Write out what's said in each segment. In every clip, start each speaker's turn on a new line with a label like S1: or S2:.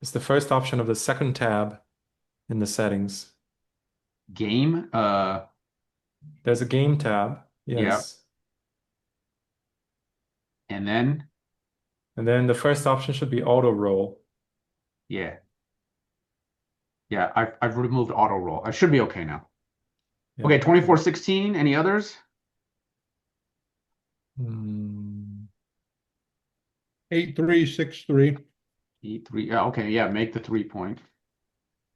S1: It's the first option of the second tab in the settings.
S2: Game, uh,
S1: There's a game tab.
S2: Yep.
S1: Yes.
S2: and then,
S1: And then the first option should be auto roll.
S2: yeah. Yeah, I've, I've removed auto roll. I should be okay now.
S1: Yeah.
S2: Okay, twenty-four sixteen, any others?
S1: Hmm.
S3: Eight, three, six, three.
S2: Eight, E three, yeah, okay, yeah, make the three point.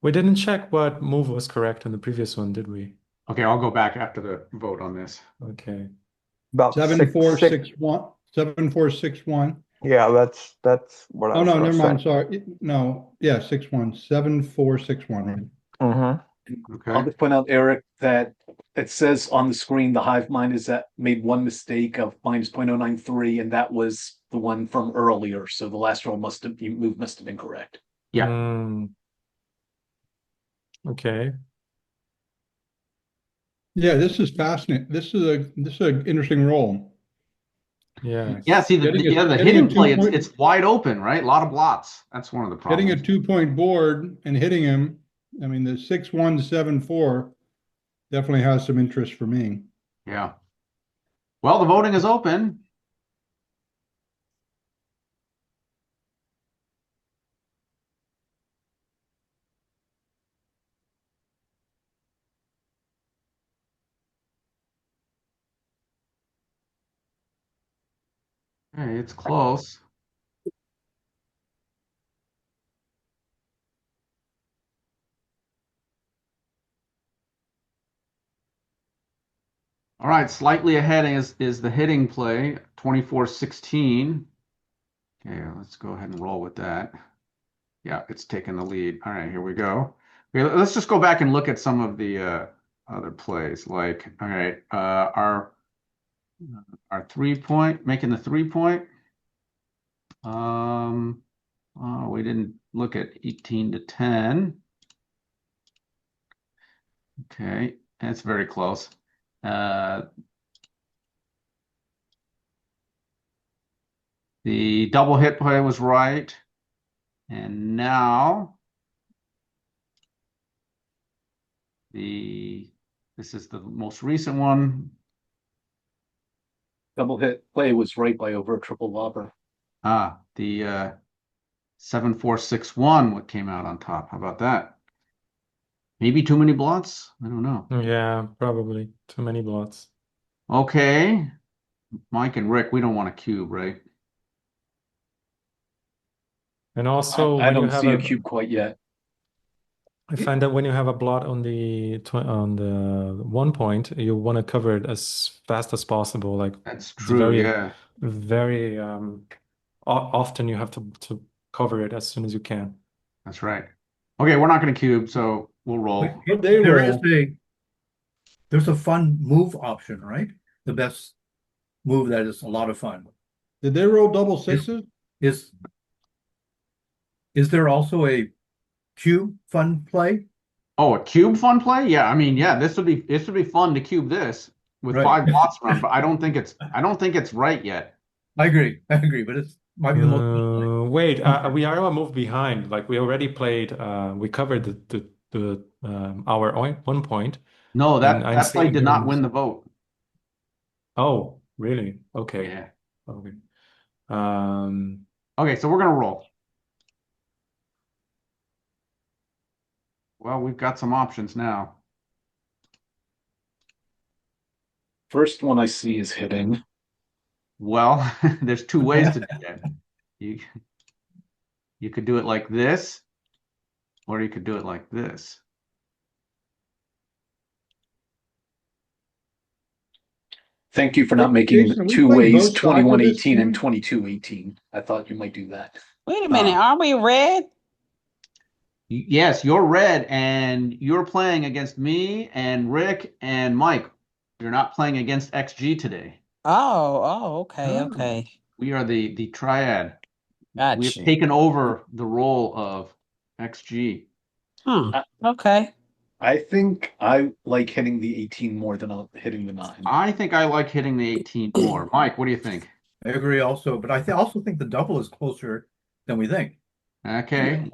S1: We didn't check what move was correct in the previous one, did we?
S2: Okay, I'll go back after the vote on this.
S1: Okay.
S4: About
S3: Seven,
S4: six-
S3: four,
S4: six-
S3: Oh, six, one, seven, four, six, one.
S4: Yeah, that's, that's what I
S3: Oh,
S4: was
S3: no,
S4: gonna
S3: never mind,
S4: say.
S3: sorry. It- No, yeah, six, one, seven, four, six, one, right?
S4: Mhm.
S5: I'll
S2: Okay,
S5: just point out, Eric, that it says on the screen, the hive mind is that made one mistake of minus point oh nine three, and that was the one from earlier, so the last roll must have, you move must have been correct.
S2: Yeah.
S1: Hmm. Okay.
S3: Yeah, this is fascinating. This is a, this is an interesting role.
S1: Yeah.
S2: yeah, see, the,
S3: Getting a-
S2: yeah, the
S3: getting a
S2: hitting play, it's,
S3: two-point-
S2: it's wide open, right? A Lot of blots, that's one of the
S3: Getting a
S2: problems.
S3: two-point board and hitting him, I mean, the six, one, seven, four definitely has some interest for me.
S2: Yeah. Well, the voting is open. Hey, it's close. All right, slightly ahead is is the hitting play, 24-16. Okay, let's go ahead and roll with that. Yeah, it's taking the lead. All right, here we go. Okay, let- let's just go back and look at some of the uh, other plays. Like, all right, uh, our our three point, making the three point. Um, oh, we didn't look at 18 to 10. Okay, that's very close. Uh, the double hit play was right. And now the this is the most recent one.
S5: Double hit play was right by over a triple whopper.
S2: Ah, the uh, 7461 what came out on top. How about that? Maybe too many blots? I don't know.
S1: Yeah, probably. Too many blots.
S2: Okay. Mike and Rick, we don't want a cube, right?
S1: And
S5: I-
S1: also,
S5: I
S1: when you
S5: don't
S1: have
S5: see a
S1: a-
S5: cube quite yet.
S1: I find that when you have a blot on the tw on the one point, you want to cover it as fast as possible. Like
S2: That's
S1: It's
S2: true,
S1: very-
S2: yeah.
S1: very um, o often, you have to to cover it as soon as you can.
S2: That's right. Okay, we're not going to cube, so we'll roll.
S3: But they
S6: There
S3: roll,
S6: is a, there's a fun move option, right? The best move that is a lot of fun.
S3: did they roll double sixes?
S6: Is, is there also a cube fun play?
S2: Oh, a cube fun play? Yeah, I mean, yeah, this would be this would be fun to cube this with
S6: Right.
S2: five lots around, but I don't think it's I don't think it's right yet.
S6: I agree, I agree, but it's might be the most. fun play.
S1: Uh, wait, uh, we are a move behind. Like we already played, uh, we covered the the, the um, our own- one point.
S2: No, that
S1: And I'm
S2: that play
S1: seeing
S2: did not
S1: yours.
S2: win the vote.
S1: Oh, really? Okay,
S2: Yeah.
S1: okay. Um,
S2: Okay, so we're gonna roll. Well, we've got some options now.
S5: First one I see is hitting.
S2: Well, there's two ways to do that. You you could do it like this, or you could do it like this.
S5: Thank you for not
S3: Hey,
S5: making
S3: Jason, are
S5: the
S3: we
S5: two
S3: playing both
S5: ways,
S3: sides of
S5: twenty-one
S3: this
S5: eighteen and
S3: game?
S5: twenty-two eighteen. I thought you might do that.
S7: Wait a minute, are we red?
S2: Y- Yes, you're red, and you're playing against me and Rick and Mike. You're not playing against XG today.
S7: Oh, oh, okay,
S6: Oh.
S7: okay.
S2: We are the the triad. We've
S7: Gotcha.
S2: taken over the role of XG.
S7: Hmm, okay.
S5: I think I like hitting the eighteen more than I'll- hitting the nine.
S2: I think I like hitting the 18 more. Mike, what do you think?
S6: I agree also, but I thi- also think the double is closer than we think.
S2: Okay,